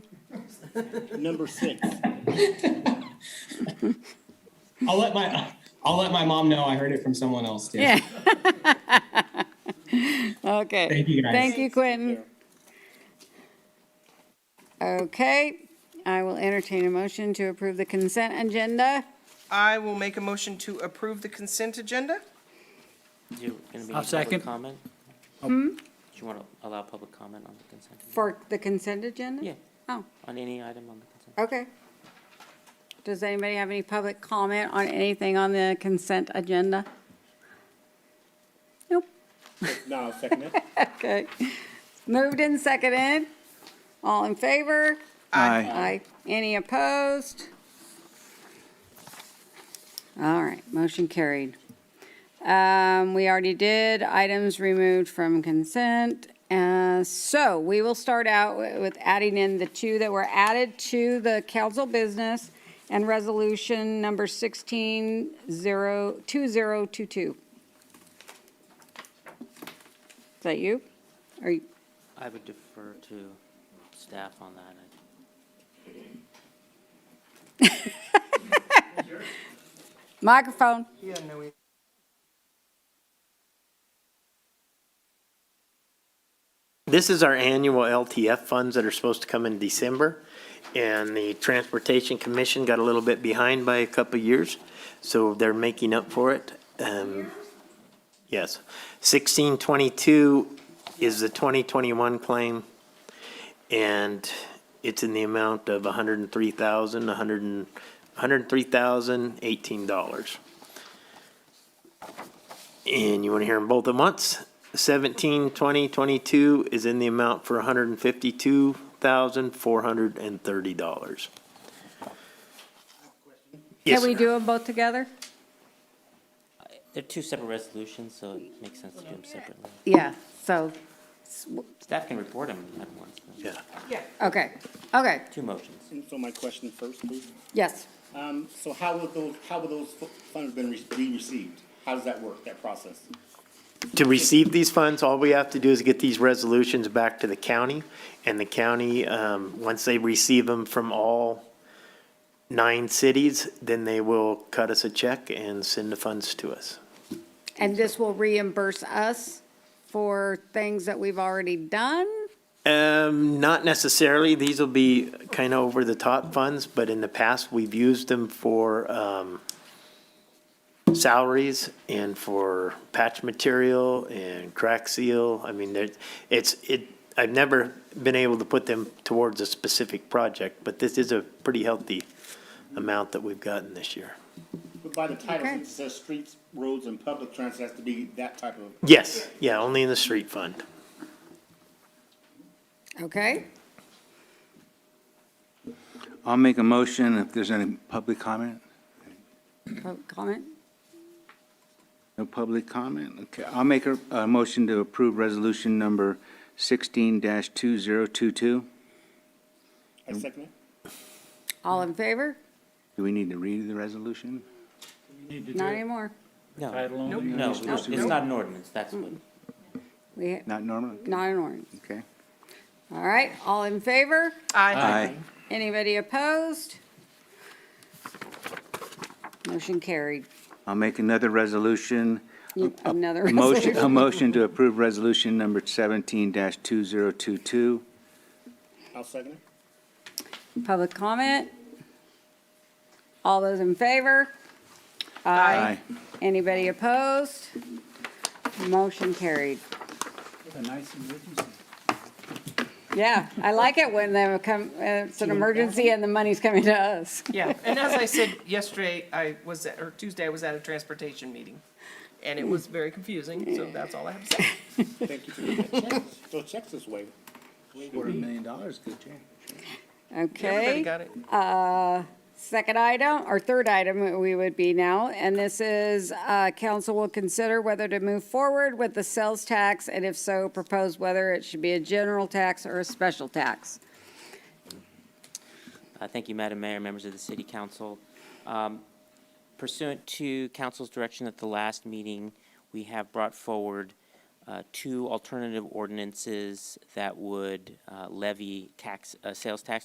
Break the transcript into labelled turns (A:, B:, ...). A: Number six.
B: I'll let my, I'll let my mom know I heard it from someone else, too.
C: Yeah. Okay.
B: Thank you, guys.
C: Thank you, Quentin. Okay, I will entertain a motion to approve the consent agenda.
D: I will make a motion to approve the consent agenda.
E: You gonna be
F: I'll
E: in
F: second. Hmm?
E: public comment? Do you want to allow public comment on the consent? agenda?
C: For the consent agenda?
E: Yeah,
C: Oh,
E: on any item on the consent.
C: okay. Does anybody have any public comment on anything on the consent agenda? Nope.
A: No, I'll second it.
C: Okay. Moved and seconded. All in favor?
F: Aye.
C: Aye. Any opposed? All right, motion carried. Um, we already did items removed from consent. Uh, so we will start out wi- with adding in the two that were added to the council business and resolution number sixteen zero, two zero two two. Is that you? Are you,
E: I would defer to staff on that. I-
C: microphone?
D: Yeah, no, we.
G: This is our annual LTF funds that are supposed to come in December, and the Transportation Commission got a little bit behind by a couple of years, so they're making up for it. Um, Yes. 1622 is the 2021 claim, and it's in the amount of 103,000, 100 and- 103,018 dollars. And you want to hear them both at once? Seventeen, twenty, twenty-two is in the amount for hundred and fifty-two thousand, four hundred and thirty dollars. Yes,
C: Can we
G: sir.
C: do them both together?
E: They're two separate resolutions, so it makes sense to do them separately.
C: Yeah, so
E: Staff can report them at once. though.
G: Yeah.
C: Okay, okay,
E: Two motions.
A: And So my question first, please.
C: yes.
A: Um, so how would those, how would those fu- funds been re- be received? How does that work, that process?
G: To receive these funds, all we have to do is get these resolutions back to the county, and the county, um, once they receive them from all nine cities, then they will cut us a check and send the funds to us.
C: And this will reimburse us for things that we've already done?
G: Um, not necessarily. These will be kind of over the top funds, but in the past, we've used them for, um, salaries and for patch material and crack seal. I mean, there, it's, it, I've never been able to put them towards a specific project, but this is a pretty healthy amount that we've gotten this year.
A: But by the title,
C: Okay.
A: since it says streets, roads, and public transit has to be that type of
G: Yes, yeah, only in the street fund.
C: Okay,
F: I'll make a motion if there's any public comment.
C: public Oh, comment?
F: No public comment? Okay, I'll make a, a motion to approve resolution number sixteen two zero two two.
A: I second it.
C: All in favor?
F: Do we need to read the resolution?
C: Not anymore.
E: No. No, we- it's not an ordinance, that's what.
C: We,
F: Not normal?
C: not an orange.
F: Okay.
C: All right, all in favor?
D: Aye.
C: Anybody opposed? Motion carried.
F: I'll make another resolution.
C: You- Another
F: A Motion, a
C: resolution.
F: motion to approve resolution number seventeen two zero two two.
A: I'll second it.
C: Public comment? All those in favor?
F: Aye.
C: Anybody opposed? Motion carried. Yeah, I like it when they come, uh, it's an emergency and the money's coming to us.
D: Yeah, and as I said yesterday, I was, at or Tuesday, I was at a transportation meeting, and it was very confusing, so that's all I have to say.
A: Thank you for doing that. Checks- Those checks this way.
F: Quarter million dollars, good change.
D: Everybody
C: Okay,
D: got it?
C: second item, or third item we would be now, and this is, uh, council will consider whether to move forward with the sales tax, and if so, propose whether it should be a general tax or a special tax.
E: Uh, Thank you, Madam Mayor, members of the City Council. Um, Pursuant to council's direction at the last meeting, we have brought forward uh, two alternative ordinances that would uh, levy tax, uh, sales tax